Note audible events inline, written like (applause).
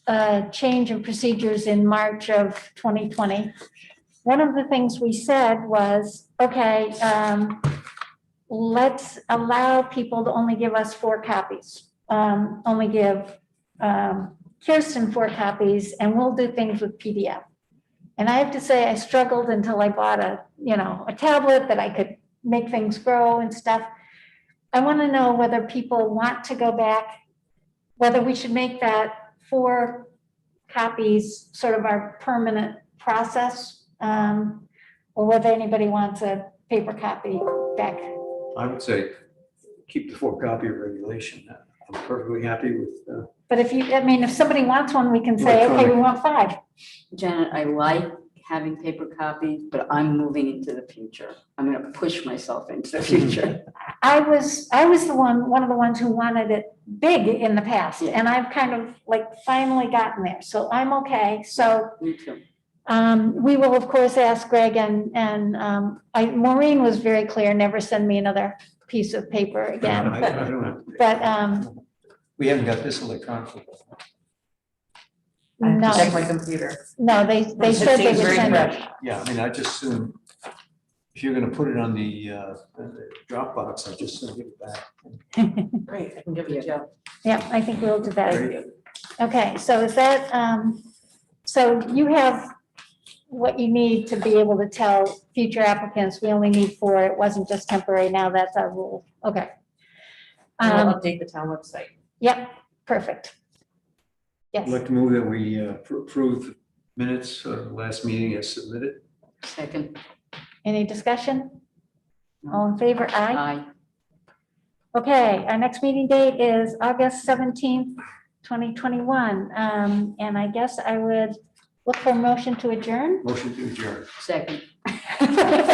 uh, change in procedures in March of 2020, one of the things we said was, okay, um, let's allow people to only give us four copies. Um, Only give um, Kirsten four copies and we'll do things with PDF. And I have to say, I struggled until I bought a, you know, a tablet that I could make things grow and stuff. I want to know whether people want to go back, whether we should make that four copies sort of our permanent process, um, or whether anybody wants a paper copy back. I would say keep the four copy regulation. I'm perfectly happy with, uh, But if you, I mean, if somebody wants one, we can say, okay, we Electronic. want five. Janet, I like having paper copies, but I'm moving into the future. I'm gonna push myself into the future. I was, I was the one, one of the ones who wanted it big in the past, Yeah. and I've kind of like finally gotten there, so I'm okay. So Me too. Um, we will, of course, ask Greg and, and, um, I, Maureen was very clear, never send me another piece of paper again, (laughs) I but, I don't know. but, um, We haven't got this electronically. I have to check no, my computer. no, they, they It said they seems would very send fresh. it. Yeah, I mean, I just assume if you're gonna put it on the, uh, the Dropbox, I just send it back. Great, I can give it to Joe. Yeah, I think we'll do that. Right? Okay, so is that, um, so you have what you need to be able to tell future applicants, we only need four, it wasn't just temporary, now that's our rule, okay. And We'll Um, update the town website. yep, perfect. I'd Yes. like to move that we uh, appro- approve minutes of the last meeting as submitted. Second, Any discussion? All in favor? Aye. aye. Okay, our next meeting date is August seventeenth, twenty twenty-one. Um, and I guess I would look for a motion to adjourn. Motion to adjourn. Second.